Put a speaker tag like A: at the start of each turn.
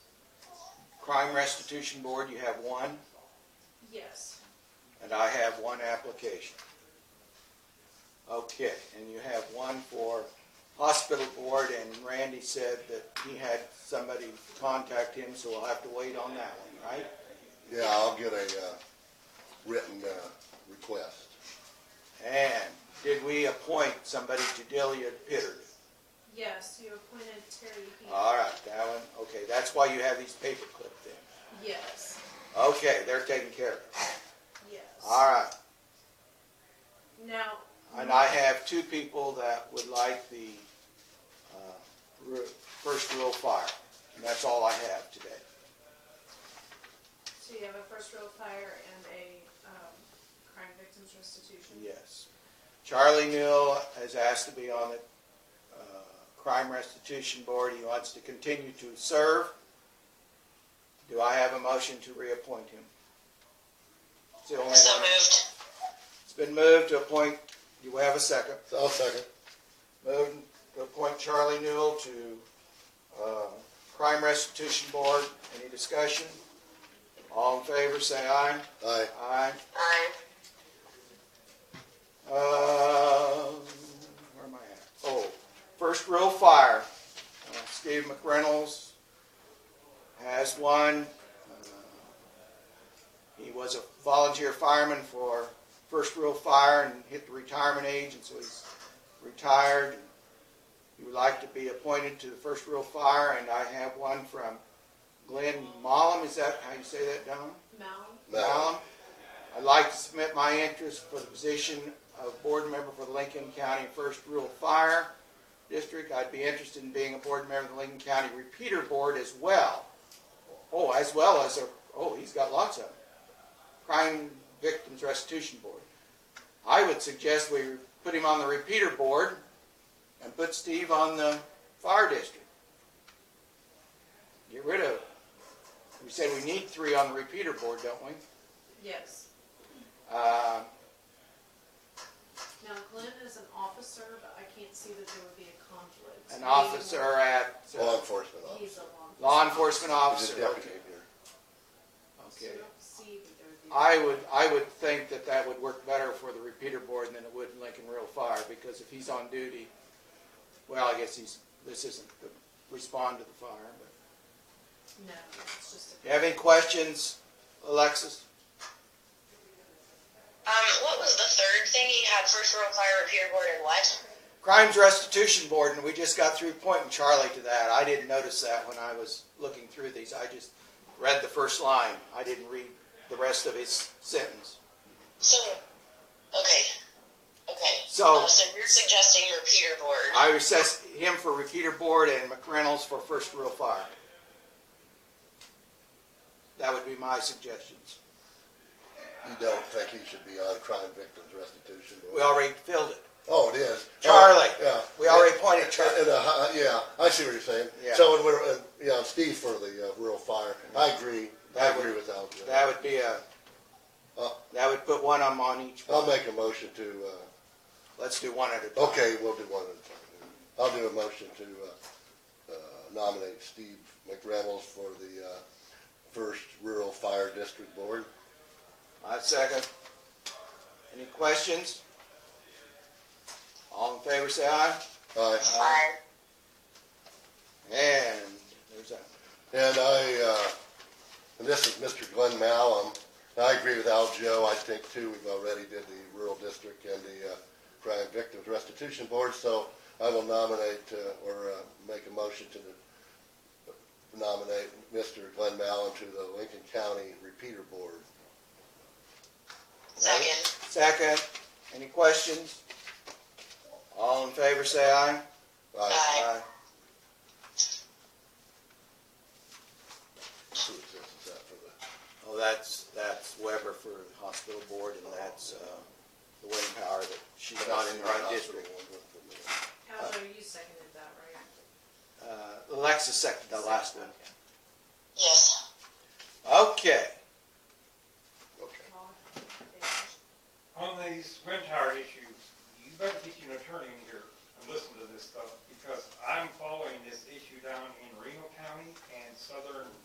A: Crime Restitution Board, you have one,
B: Yes,
A: and I have one application. Okay, and you have one for Hospital Board, and Randy said that he had somebody contact him, so we'll have to wait on that one, right?
C: Yeah, I'll get a, uh, written, uh, request.
A: And did we appoint somebody to Delia Pitter?
B: yes, you appointed Terry Heath.
A: All right, that one, okay, that's why you have these paper clips in.
B: Yes,
A: Okay, they're taken care of.
B: yes.
A: All right,
B: Now,
A: and I have two people that would like the uh, ru- first rule fire. And that's all I have today.
B: so you have a first row fire and a, um, crime victims restitution?
A: Yes. Charlie Newell has asked to be on the uh, Crime Restitution Board. He wants to continue to serve. Do I have a motion to reappoint him? It's the only one.
D: So moved.
A: It's been moved to appoint, do we have a second?
C: So I'll second.
A: Moved to appoint Charlie Newell to uh, Crime Restitution Board. Any discussion? All in favor, say aye.
C: Aye.
A: Aye.
D: Aye.
A: Uh, where am I at? Oh, first row fire. Uh, Steve McReynolds has one. Uh, He was a volunteer fireman for first row fire and hit the retirement age, and so he's retired. He would like to be appointed to the first row fire, and I have one from Glenn Mollum. Is that how you say that, Don?
B: Mel,
A: Now, um, I'd like to submit my interest for the position of board member for the Lincoln County First Rural Fire District. I'd be interested in being a board member of the Lincoln County Repeater Board as well. Oh, as well as a, oh, he's got lots of them. Crime Victims Restitution Board. I would suggest we put him on the repeater board and put Steve on the fire district. Get rid of, we said we need three on the repeater board, don't we?
B: yes.
A: Uh,
B: Now Glenn is an officer, but I can't see that there would be a conflict.
A: an officer at
C: Law
A: uh,
C: enforcement
B: He's a
C: officer.
A: law enforcement
C: He's a
A: officer.
C: deputy here.
B: So
A: Okay.
B: I don't see that there would be.
A: I would I would think that that would work better for the repeater board than it would in Lincoln Real Fire because if he's on duty, well, I guess he's this isn't the respond to the fire. But
B: No, it's just
A: you have any questions, Alexis?
D: Um, what was the third thing he had? First row fire repair board and what?
A: Crimes Restitution Board, and we just got through pointing Charlie to that. I didn't notice that when I was looking through these. I just read the first line. I didn't read the rest of his sentence.
D: So, okay, okay.
A: So-
D: Uh, so you're suggesting your Peter board.
A: I recess him for repeater board and McReynolds for first real fire. That would be my suggestions.
C: You don't think he should be on crime victims restitution? board?
A: We already filled it.
C: Oh, it is. Oh,
A: Charlie.
C: Yeah.
A: We already appointed Charlie.
C: And, uh, hi- yeah, I see what you're saying.
A: Yeah.
C: So, and we're, uh, yeah, Steve for the, uh, rural fire. I agree. I
A: That would-
C: agree with Alvin.
A: That would be a,
C: Uh,
A: that would put one of them on each.
C: I'll make a motion to, uh,
A: Let's do one at a time.
C: Okay, we'll do one at a time. I'll do a motion to uh, uh, nominate Steve McReynolds for the uh, First Rural Fire District Board.
A: I second. Any questions? All in favor, say aye.
C: Aye.
A: uh,
D: Aye.
A: And there's a,
C: And I, uh, and this is Mr. Glenn Mallum. And I agree with Al Joe. I think too, we've already did the Rural District and the uh, Crime Victims Restitution Board, so I will nominate uh, or uh, make a motion to nominate Mr. Glenn Mallum to the Lincoln County Repeater Board.
D: Second.
A: second. Any questions? All in favor, say aye.
C: Aye.
D: Aye.
C: Who is this? Is that uh, for the?
A: Oh, that's, that's Weber for the hospital board, and that's, uh, the wind power that she's not in the right district.
B: Aljo, you seconded that, right?
A: Uh, Alexis seconded the last one.
D: Yes.
A: Okay,